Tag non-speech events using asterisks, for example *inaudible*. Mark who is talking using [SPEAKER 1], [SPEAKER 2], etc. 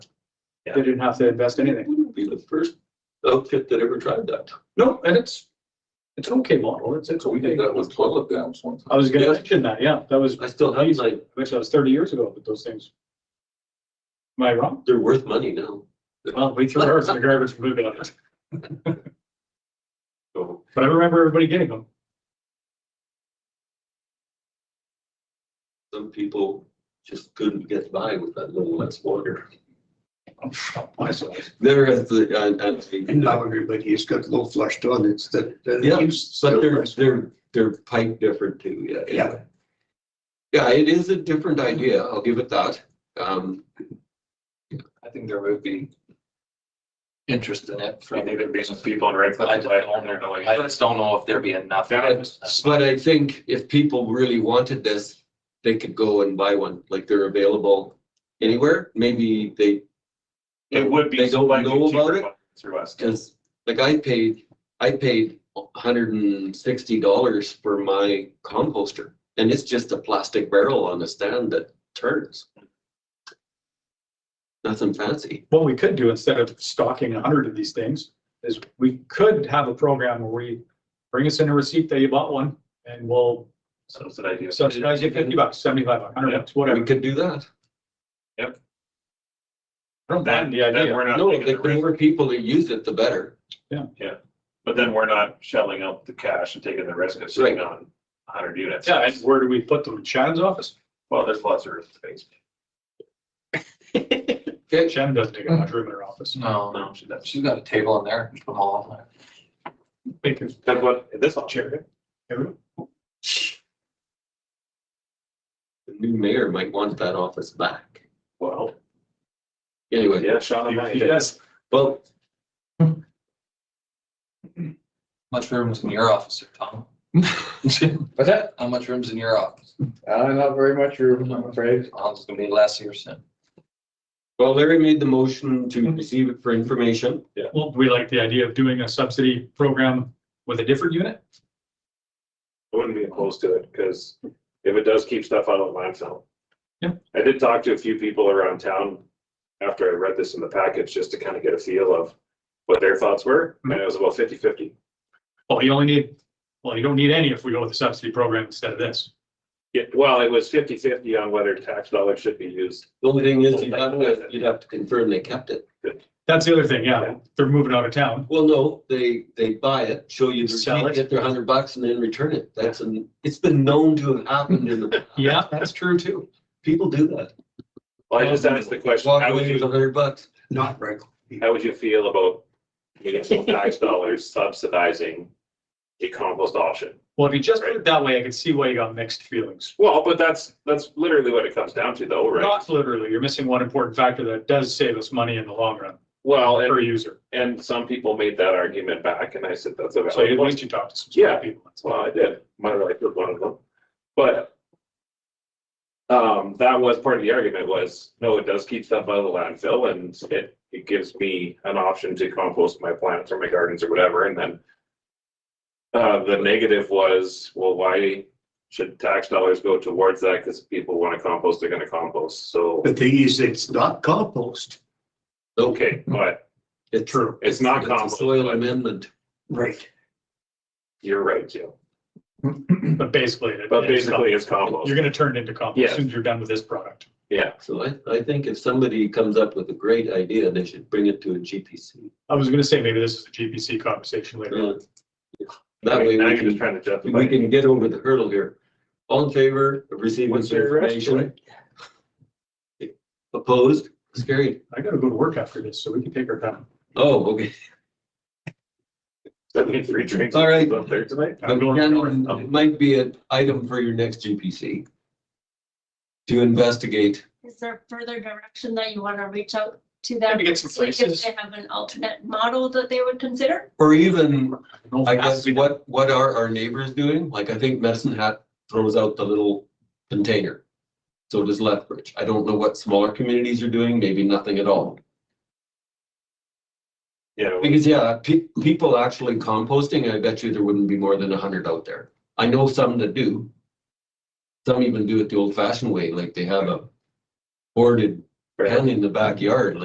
[SPEAKER 1] Yeah.
[SPEAKER 2] They didn't have to invest
[SPEAKER 1] It
[SPEAKER 2] anything.
[SPEAKER 1] wouldn't be the first outfit that ever tried that.
[SPEAKER 2] No, and it's, it's an okay model. It's, it's
[SPEAKER 1] So we
[SPEAKER 2] okay.
[SPEAKER 1] did that with toilet dams one
[SPEAKER 2] I
[SPEAKER 1] time.
[SPEAKER 2] was gonna
[SPEAKER 1] Yeah.
[SPEAKER 2] mention that, yeah, that was,
[SPEAKER 1] I still have, like,
[SPEAKER 2] actually, that was thirty years ago, but those things. Am I wrong?
[SPEAKER 1] they're worth money now.
[SPEAKER 2] Well, we threw ours in the garbage for moving on it,
[SPEAKER 1] So
[SPEAKER 2] but I remember everybody getting them.
[SPEAKER 1] some people just couldn't get by with that little less water. They're at the, at at
[SPEAKER 3] And
[SPEAKER 1] the,
[SPEAKER 3] now everybody's got low flush toilets that. that
[SPEAKER 1] Yeah,
[SPEAKER 3] use-
[SPEAKER 1] but they're, they're, they're pipe different too, yeah.
[SPEAKER 3] Yeah.
[SPEAKER 1] Yeah, it is a different idea. I'll give it that. Um,
[SPEAKER 4] I think there would be interest in it for maybe reason people to regulate by own their noise. I just don't know if there'd be enough.
[SPEAKER 1] but but I think if people really wanted this, they could go and buy one, like they're available anywhere. Maybe they
[SPEAKER 5] It would be.
[SPEAKER 1] They don't
[SPEAKER 5] slightly
[SPEAKER 1] know about
[SPEAKER 5] cheaper
[SPEAKER 1] it?
[SPEAKER 5] one Through us.
[SPEAKER 1] Cause like I paid, I paid hundred and sixty dollars for my composter and it's just a plastic barrel on a stand that turns. Nothing fancy.
[SPEAKER 2] What we could do instead of stocking a hundred of these things is we could have a program where we bring us in a receipt that you bought one and we'll
[SPEAKER 5] So that's an idea.
[SPEAKER 2] subsidize you fifty bucks, seventy-five, a hundred
[SPEAKER 5] Yeah.
[SPEAKER 2] bucks,
[SPEAKER 1] We
[SPEAKER 2] whatever.
[SPEAKER 1] could do that.
[SPEAKER 2] I don't mind the
[SPEAKER 5] Then
[SPEAKER 2] idea.
[SPEAKER 5] we're not
[SPEAKER 1] No,
[SPEAKER 5] taking
[SPEAKER 1] the
[SPEAKER 5] the risk,
[SPEAKER 1] more people that use it, the better.
[SPEAKER 5] But then we're not shelling out the cash and taking the risk of sitting on a hundred units.
[SPEAKER 2] Yeah, and where do we put them? Shannon's office?
[SPEAKER 5] Well, there's lots of earth space.
[SPEAKER 1] Okay,
[SPEAKER 2] Shannon doesn't take up much room in her office.
[SPEAKER 5] Mm-hmm.
[SPEAKER 4] No, no, she doesn't. she's got a table in there, just put them all on there.
[SPEAKER 2] We can-
[SPEAKER 5] That's what, this all chair.
[SPEAKER 2] Chair, everyone?
[SPEAKER 1] the new mayor might want that office back.
[SPEAKER 5] Well,
[SPEAKER 1] Anyway,
[SPEAKER 5] yeah, Sean.
[SPEAKER 2] Yes.
[SPEAKER 1] well,
[SPEAKER 4] Much room is in your office, Tom.
[SPEAKER 6] *laughs* What's that?
[SPEAKER 4] How much room's in your office?
[SPEAKER 6] Uh, not very much room, I'm afraid.
[SPEAKER 4] Oh, It's gonna be last year's then.
[SPEAKER 1] well, Larry made the motion
[SPEAKER 2] Mm-hmm.
[SPEAKER 1] to receive it for information.
[SPEAKER 2] Well, we like the idea of doing a subsidy program with a different unit.
[SPEAKER 5] I wouldn't be opposed to it, because if it does keep stuff out of the landfill.
[SPEAKER 2] Yeah.
[SPEAKER 5] I did talk to a few people around town after I read this in the package, just to kind of get a feel of what their thoughts were, and it was about 50 50.
[SPEAKER 2] Well, you only need, well, you don't need any if we go with a subsidy program instead of this.
[SPEAKER 5] Yeah, well, it was 50 50 on whether tax dollars should be used.
[SPEAKER 1] The only thing is, you'd have to, you'd have to confirm they kept it.
[SPEAKER 2] That's the other thing, yeah, they're moving out of town.
[SPEAKER 1] Well, no, they, they buy it, show you the
[SPEAKER 2] Sell
[SPEAKER 1] receipt,
[SPEAKER 2] it.
[SPEAKER 1] get their hundred bucks and then return it. That's an, it's been known to have
[SPEAKER 2] *laughs*
[SPEAKER 1] happened in the. past.
[SPEAKER 2] Yeah, that's true too.
[SPEAKER 1] People do that.
[SPEAKER 5] Well, I just asked the question,
[SPEAKER 1] Walk
[SPEAKER 5] how would
[SPEAKER 1] away with a
[SPEAKER 5] you,
[SPEAKER 1] hundred bucks.
[SPEAKER 3] Not regular.
[SPEAKER 5] how would you feel about municipal *laughs* tax dollars subsidizing a compost option?
[SPEAKER 2] Well, if you just put it that way, I can see why you got mixed feelings.
[SPEAKER 5] Well, but that's, that's literally what it comes down to though, right?
[SPEAKER 2] Not literally, you're missing one important factor that does save us money in the long run
[SPEAKER 5] Well, and
[SPEAKER 2] per user.
[SPEAKER 5] And some people made that argument back and I said, that's a
[SPEAKER 2] So at
[SPEAKER 5] valid point.
[SPEAKER 2] least you talked to some
[SPEAKER 5] Yeah.
[SPEAKER 2] people. That's
[SPEAKER 5] Well,
[SPEAKER 2] why.
[SPEAKER 5] I did. My wife was one of them. But um, that was part of the argument was, no, it does keep stuff out of the landfill and it, it gives me an option to compost my plants or my gardens or whatever. And then uh, the negative was, well, why should tax dollars go towards that? Because people want to compost, they're going to compost. So,
[SPEAKER 3] The thing is, it's not compost.
[SPEAKER 5] okay, but
[SPEAKER 1] It's
[SPEAKER 2] True.
[SPEAKER 5] it's not
[SPEAKER 1] a
[SPEAKER 5] compost,
[SPEAKER 1] Soil
[SPEAKER 5] but-
[SPEAKER 1] amendment.
[SPEAKER 3] Right.
[SPEAKER 5] you're right, Joe.
[SPEAKER 2] But basically. it-
[SPEAKER 5] But
[SPEAKER 2] it's-
[SPEAKER 5] basically it's compost.
[SPEAKER 2] You're gonna turn it into compost as
[SPEAKER 5] Yeah.
[SPEAKER 2] soon as you're done with this product.
[SPEAKER 5] Yeah,
[SPEAKER 1] So I, I think if somebody comes up with a great idea, they should bring it to a GPC.
[SPEAKER 2] I was gonna say maybe this is a GPC conversation later. on.
[SPEAKER 1] That
[SPEAKER 5] I
[SPEAKER 1] way
[SPEAKER 5] mean, now
[SPEAKER 1] we
[SPEAKER 5] you're just
[SPEAKER 1] can,
[SPEAKER 5] trying to justify.
[SPEAKER 1] we
[SPEAKER 5] it.
[SPEAKER 1] can get over the hurdle here. All in favor of receiving
[SPEAKER 5] What's
[SPEAKER 1] this
[SPEAKER 5] your rest,
[SPEAKER 1] information? Opposed? It's carried.
[SPEAKER 2] I gotta go to work after this, so we can take our time.
[SPEAKER 1] Oh, okay.
[SPEAKER 5] That means three drinks.
[SPEAKER 1] All right.
[SPEAKER 5] Up there tonight.
[SPEAKER 2] I'm going to
[SPEAKER 1] Again,
[SPEAKER 2] Florida.
[SPEAKER 1] It might be an item for your next GPC. To investigate.
[SPEAKER 7] Is there further direction that you want to reach out to them?
[SPEAKER 2] Maybe get some
[SPEAKER 7] see if
[SPEAKER 2] places.
[SPEAKER 7] They have an alternate model that they would consider?
[SPEAKER 1] Or even,
[SPEAKER 2] No,
[SPEAKER 1] I
[SPEAKER 2] it has
[SPEAKER 1] guess,
[SPEAKER 2] to be done.
[SPEAKER 1] what, what are our neighbors doing? Like, I think Medicine Hat throws out the little container. So does Lethbridge. I don't know what smaller communities are doing, maybe nothing at all.
[SPEAKER 5] Yeah, we-
[SPEAKER 1] Because, yeah, pe- people actually composting, I bet you there wouldn't be more than a hundred out there. I know some that do. Some even do it the old fashioned way, like they have a boarded
[SPEAKER 5] fair.
[SPEAKER 1] pen in the backyard,